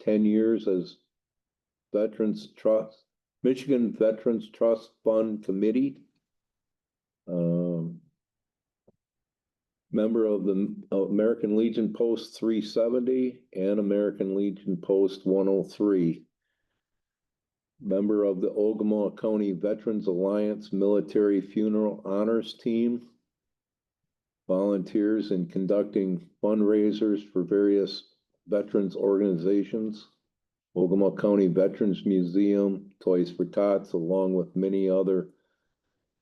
ten years as Veterans Trust, Michigan Veterans Trust Fund Committee. Um, member of the American Legion Post three seventy and American Legion Post one oh three. Member of the Ogama County Veterans Alliance Military Funeral Honors Team. Volunteers in conducting fundraisers for various veterans organizations. Ogama County Veterans Museum, Toys for Tots, along with many other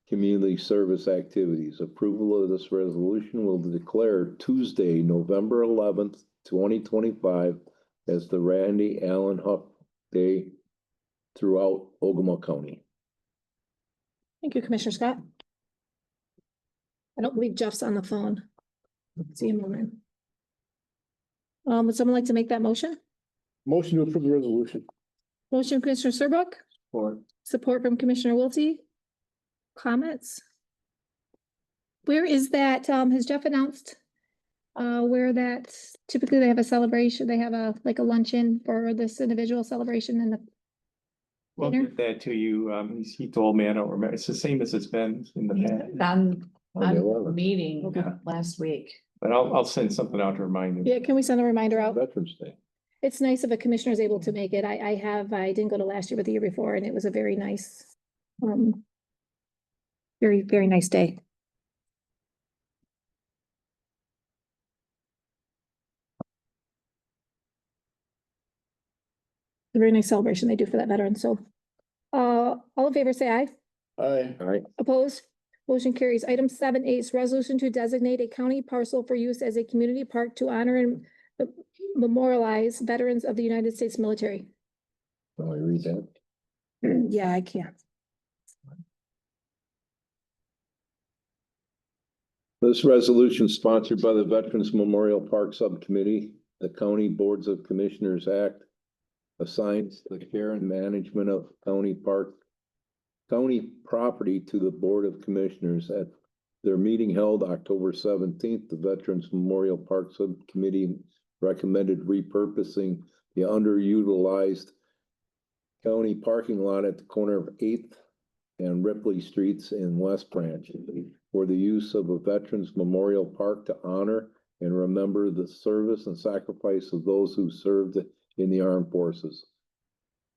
community service activities. Approval of this resolution will declare Tuesday, November eleventh, twenty twenty-five as the Randy Allen Huff Day throughout Ogama County. Thank you, Commissioner Scott. I don't believe Jeff's on the phone. See him online. Um, would someone like to make that motion? Motion to approve the resolution. Motion Commissioner Serbuk, Or. support from Commissioner Wiltie. Comments? Where is that? Um, has Jeff announced? Uh, where that typically they have a celebration, they have a, like a luncheon for this individual celebration and the, We'll Peter? get that to you. Um, he's- he told me, I don't remember. It's the same as it's been in the past. On, On on the the 11th. meeting Yeah. last week. But I'll, I'll send something out to remind him. yeah, can we send a reminder out? Veterans Day. It's nice if a commissioner is able to make it. I, I have, I didn't go to last year, but the year before, and it was a very nice, um, very, very nice day. A Very nice celebration they do for that veteran, so. Uh, all in favor, say aye. Aye. All right, Opposed? Motion carries. Item seven A is resolution to designate a county parcel for use as a community park to honor and memorialize veterans of the United States military. now I read that. Yeah, I can't. This resolution is sponsored by the Veterans Memorial Park Subcommittee, the County Boards of Commissioners Act assigns the care and management of county park, county property to the Board of Commissioners at their meeting held October seventeenth, the Veterans Memorial Park Subcommittee recommended repurposing the underutilized county parking lot at the corner of Eighth and Ripley Streets in West Branch for the use of a Veterans Memorial Park to honor and remember the service and sacrifice of those who served in the armed forces.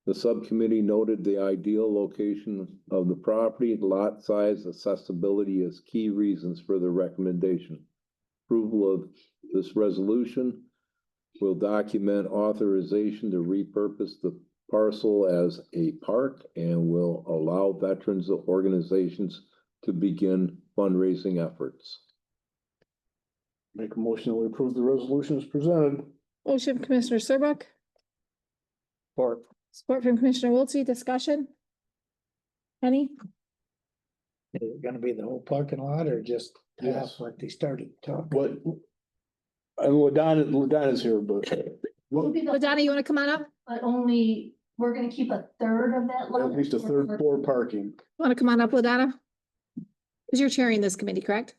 The subcommittee noted the ideal location of the property, lot size, accessibility as key reasons for the recommendation. Approval of this resolution will document authorization to repurpose the parcel as a park and will allow veterans organizations to begin fundraising efforts. Make a motion to approve the resolution as presented. Motion from Commissioner Serbuk, Or. support from Commissioner Wiltse, discussion? Any? Is it gonna be the whole parking lot or just half Yes. like they started talking? What? And Ladon, Ladon is here, but It'll what, be the- Ladonna, you want to come on up? But only, we're gonna keep a third of that. at lot. least a third floor parking. Want to come on up, Ladonna? Because you're chairing this committee, correct?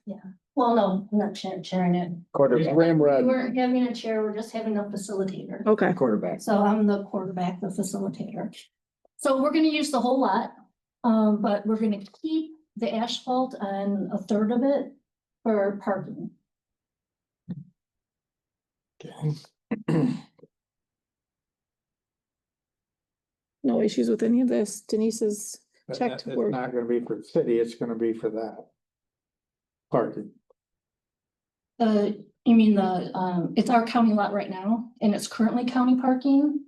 Well, no, I'm not chair- chairing it. Quarter, There's Ramrod, We're having a chair, we're just having a facilitator. Okay. quarterback. So I'm the quarterback, the facilitator. So we're gonna use the whole lot, um, but we're gonna keep the asphalt on a third of it for parking. No issues with any of this. Denise's, But Checked that- It's work. not gonna be for the city, it's gonna be for that. Parking. The, you mean the, um, it's our county lot right now, and it's currently county parking.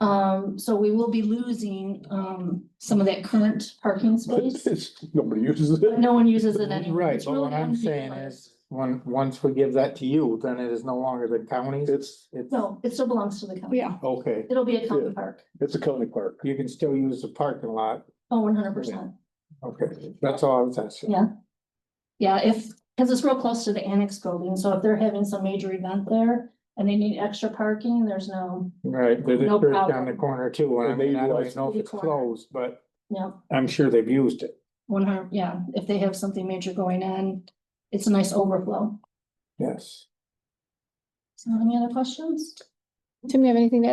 Um, so we will be losing, um, some of that current parking but space. it's, nobody uses But it. no one uses it anymore. Right, It's but really what I'm saying underutilized. is, when, once we give that to you, then it is no longer the county's. It's, It's, No, it still belongs to the county. yeah, okay, It'll be a Yeah. county park, it's a county park. you can still use the parking lot. oh, one hundred percent. Okay, that's all I was asking. Yeah. Yeah, if, because it's real close to the annex building, so if they're having some major event there and they need extra parking, there's no, Right, there's a No church down problem. the corner too, and I And they mean, I don't utilize- even know if it's closed, but yeah, I'm sure they've used it. one hundred, yeah, if they have something major going on, it's a nice overflow. Yes. So any other questions? Tim, you have anything to add?